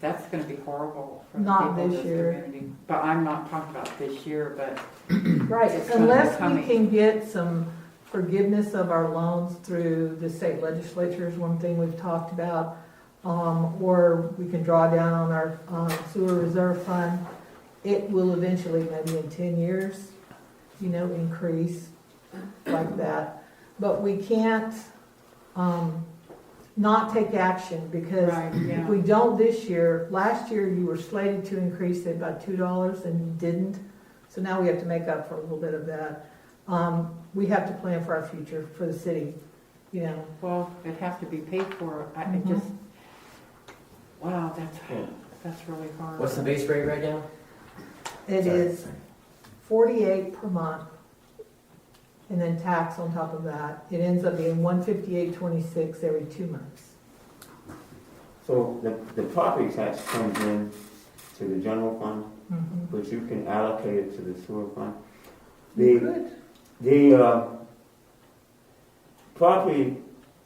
That's gonna be horrible for the Not people in this this year. community. But I'm not talking about this year, but Right, It's gonna unless come we in. can get some forgiveness of our loans through the state legislature is one thing we've talked about. Um, or we can draw down on our um, sewer reserve fund. It will eventually, maybe in ten years, you know, increase like that. But we can't, um, not take action because right, if yeah. we don't this year, last year you were slated to increase it by two dollars and you didn't. So now we have to make up for a little bit of that. Um, we have to plan for our future, for the city, you know. Well, it has to be paid for. I it Mhm. just, wow, that's, Yeah. that's really hard. What's the base rate right now? It Sorry. is forty-eight per month. And then tax on top of that. It ends up being one fifty-eight twenty-six every two months. So the, the property tax comes in to the general fund, Mhm. but you can allocate it to the sewer fund. You The, could. the, uh, property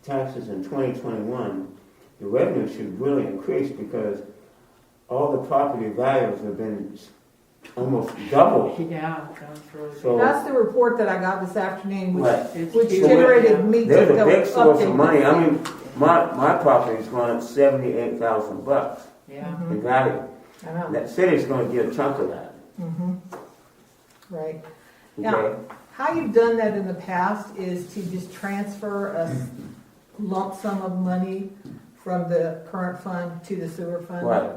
taxes in twenty twenty-one, the revenue should really increase because all the property values have been almost doubled. Yeah, that's really. So- That's the report that I got this afternoon, which, Right. it's which huge. Yeah. generated me to There's a go big source of update money. this. I mean, my, my property's going up seventy-eight thousand bucks Yeah, Mhm. in value. I know. That city's gonna get a chunk of that, Mhm. Right. Yeah. okay? How you've done that in the past is to just transfer a s- lump sum of money from the current fund to the sewer fund. Right,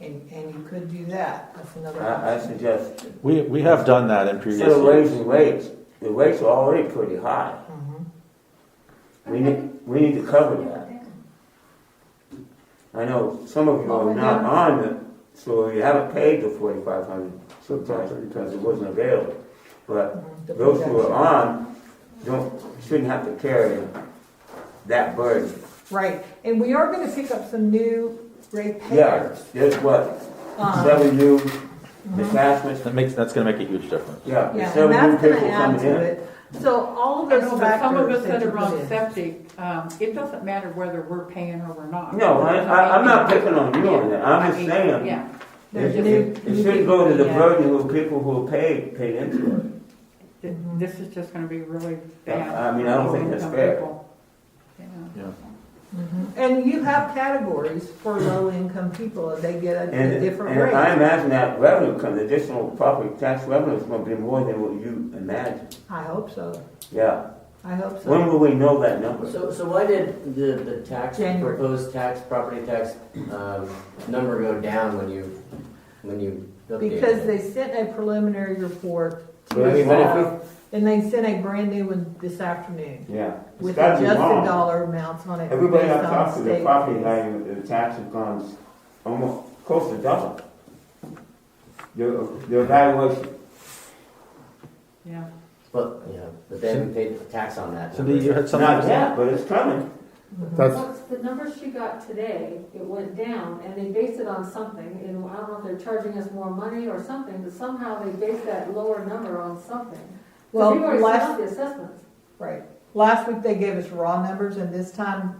And, and you could do that, that's another I, I option. suggest, We, we have done that in previous instead of years. raising rates, the rates are already pretty high. Mhm. We need, we need to cover that. I know some of you Well, are we not don't- on the, so you haven't paid the forty-five hundred sometimes because it wasn't available. But Mhm. The those who projection. are on don't, shouldn't have to carry that burden. Right, and we are gonna pick up some new rate Yeah, payers. there's what, Um, seven new mhm. detachments, That makes, that's gonna make a huge difference. yeah, Yeah, there's and seven new that's people gonna add coming in. to it. So all of I those know, but some of factors us that that you are put on in. septic, um, it doesn't matter whether we're paying or we're not. No, I, I, I'm not picking on you on that, I'm I mean, just saying, Yeah, There's it- new- it- new It shouldn't go to the people, yeah. burden of people who are paid, paid into it. Th- Mhm. this is just gonna be really bad. I mean, I don't think that's fair. Yeah. Mhm. And you have categories for low-income people, and they get And, a- a different and I rate. imagine that revenue, comes additional property tax revenue is gonna be more than what you imagine, I hope so, yeah. I hope so. When will we know that number? So, so why did the, the tax, January. proposed tax, property tax, um, number go down when you, when you updated Because it? they sent a preliminary report to Well, I mean, but if we- us, and they sent a brand new one this afternoon Yeah. It's with gotta be adjusted wrong. dollar amounts on it. Everybody based I've on talked to, the state property fees. value, the tax has gone almost close to double. The, the valuation, Yeah. But, yeah, but they haven't paid the tax on that. Cindy, you had something? not to say? yet, but it's coming. Mhm. That's- Well, the number she got today, it went down, and they based it on something, and I don't know if they're charging us more money or something, but somehow they based that lower number on something. 'Cause Well, They've already last- sent out the assessments. Right. Last week they gave us raw numbers and this time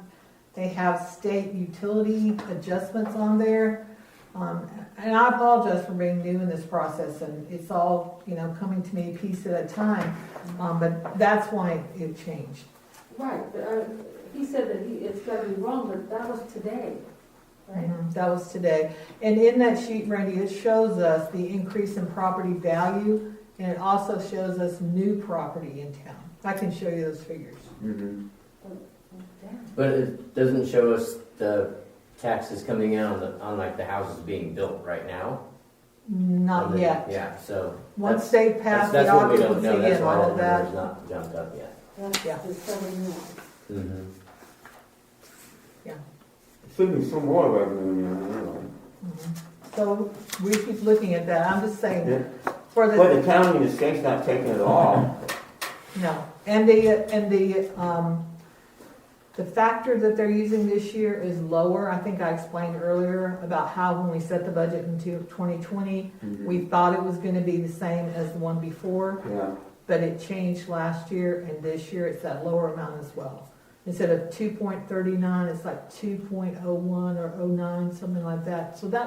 they have state utility adjustments on there. Um, and I apologize for being new in this process and it's all, you know, coming to me piece at a time. Um, but that's why it changed. Right, but, uh, he said that he, it's gotta be wrong, but that was today, right? Mhm, That was today. And in that sheet, Randy, it shows us the increase in property value and it also shows us new property in town. I can show you those figures. Mm-hmm. Damn. But it doesn't show us the taxes coming in on the, on like the houses being built right now. On Not the- yet. Yeah, so. Once that's- they That's, pass the that's what we don't occupancy know, that's and why all that of that, number's not jumped up yet. That's Yeah. disturbing me. Mm-hmm. Should be some more revenue in there, anyway. Mm-hmm. So we keep looking at that, I'm just Yeah. saying, for But the, the county and the state's not taking it all. no, and the, and the, um, the factor that they're using this year is lower, I think I explained earlier about how when we set the budget in two- 2020, we thought it was gonna be the same as the one before, Yeah, but it changed last year, and this year it's that lower amount as well. Instead of two point thirty-nine, it's like two point oh one or oh nine, something like that. So that